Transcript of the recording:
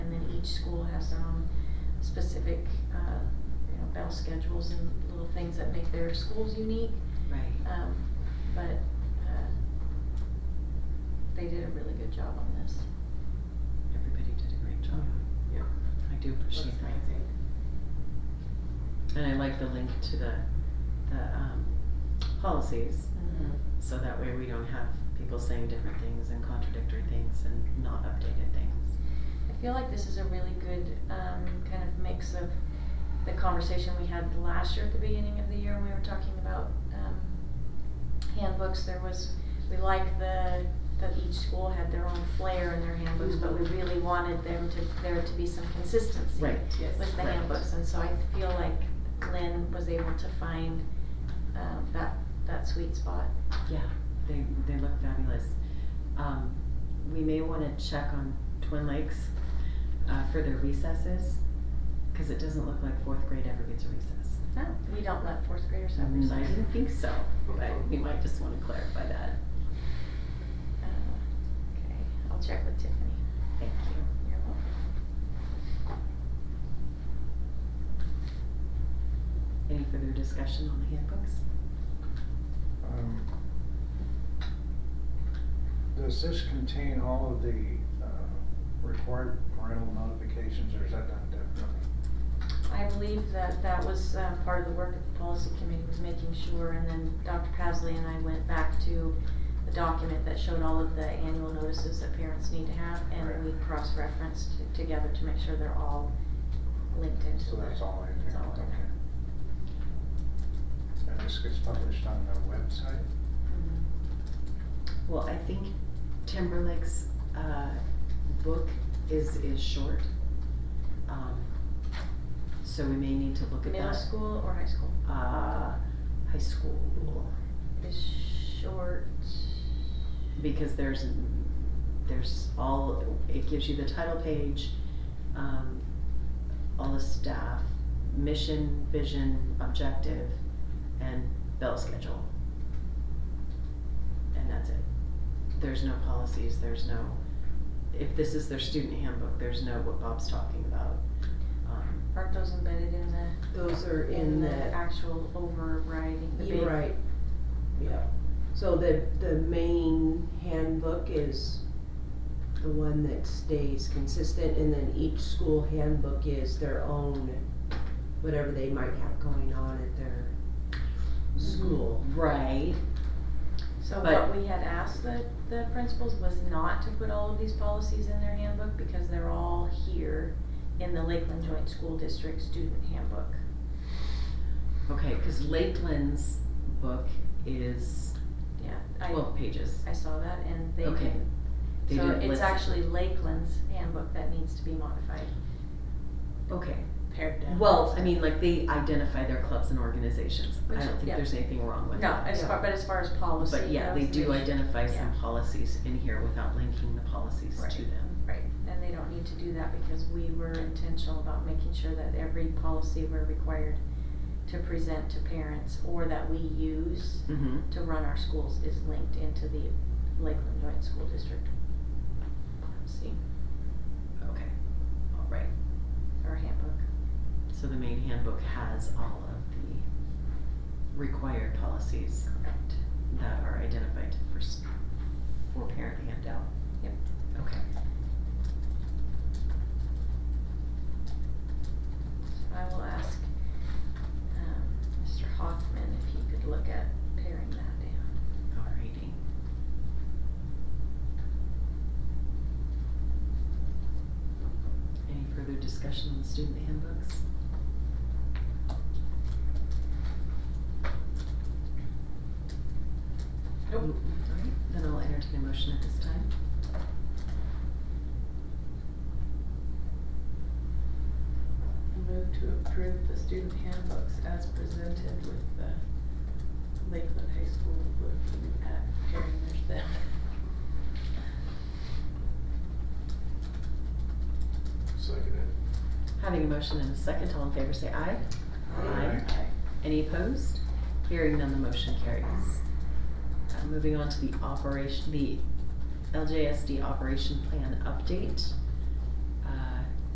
each school has their own specific, uh, you know, bell schedules and little things that make their schools unique. Right. Um, but, uh, they did a really good job on this. Everybody did a great job. Yeah, I do that's appreciate that. amazing. And I like the link to the, the, um, policies. So that way we don't have people saying different things and contradictory things and not updated things. I feel like this is a really good um, kind of mix of the conversation we had last year at the beginning of the year when we were talking about um, handbooks. There was we like the that each school had their own flair in their handbooks, but we really wanted them to there to be some consistency Mm-hmm. Right, yes, with the right. handbooks. And so I feel like Lynn was able to find um, that that sweet spot. Yeah, they, they look fabulous. Um, we may wanna check on Twin Lakes, uh, for their recesses, cause it doesn't look like fourth grade ever gets a recess. No, Oh, we don't let fourth graders have Mm, I recess. didn't think so, but we might just wanna clarify that. Uh, okay, I'll check with Tiffany. Thank you. You're welcome. Any further discussion on the handbooks? Um, Does this contain all of the uh, required parental notifications, or is that not definitely? I believe that that was uh, part of the work that the policy committee was making sure, and then Dr. Pasley and I went back to the document that showed all of the annual notices that parents need to have, and Right. we cross-referenced t- together to make sure they're all linked into So the- that's all in It's there, all in okay. And this gets published on the website? Mhm. Well, I think Timberlake's, uh, book is, is short. Um, so we may need to look at that. Middle school or high school Uh, high school, is short, because there's, there's all, it gives you the title page, um, all the staff, mission, vision, objective, and bell schedule. And that's it. There's no policies, there's no, if this is their student handbook, there's no what Bob's talking about. Um, aren't those embedded in the, Those are in in the the, actual overriding, the big? you're right, yeah. So the, the main handbook is the one that stays consistent, and then each school handbook is their own, whatever they might have going on at their Mm-hmm. school. Right, So But- what we had asked the, the principals was not to put all of these policies in their handbook because they're all here in the Lakeland Joint School District Student Handbook. okay, cause Lakeland's book is Yeah, I, twelve pages. I saw that and they Okay. didn't. They So didn't it's listen. actually Lakeland's handbook that needs to be modified, Okay, pared down. well, I mean, like, they identify their clubs and organizations, I Which- don't think yeah. there's anything wrong with No, that. as far, but as far as policy But yeah, they goes, do should- identify some yeah. policies in here without linking the policies Right. to them. Right, and they don't need to do that because we were intentional about making sure that every policy we're required to present to parents or that we use Mm-hmm. to run our schools is linked into the Lakeland Joint School District policy Okay, all right, or handbook. so the main handbook has all of the required policies Correct. that are identified for, s- for parent handout. Yep. Okay, So I will ask, um, Mr. Hoffman if he could look at paring that down. all righty. Any further discussion on the student handbooks? Nope. Alright, then I'll entertain a motion at this time. Move to approve the student handbooks as presented with the Lakeland High School book at pairing their them. Seconded. Having a motion and a second, all in favor say aye. Aye. Any opposed? Hearing none, the motion carries. Uh, Moving on to the operation, the LJSD operation plan update. Uh,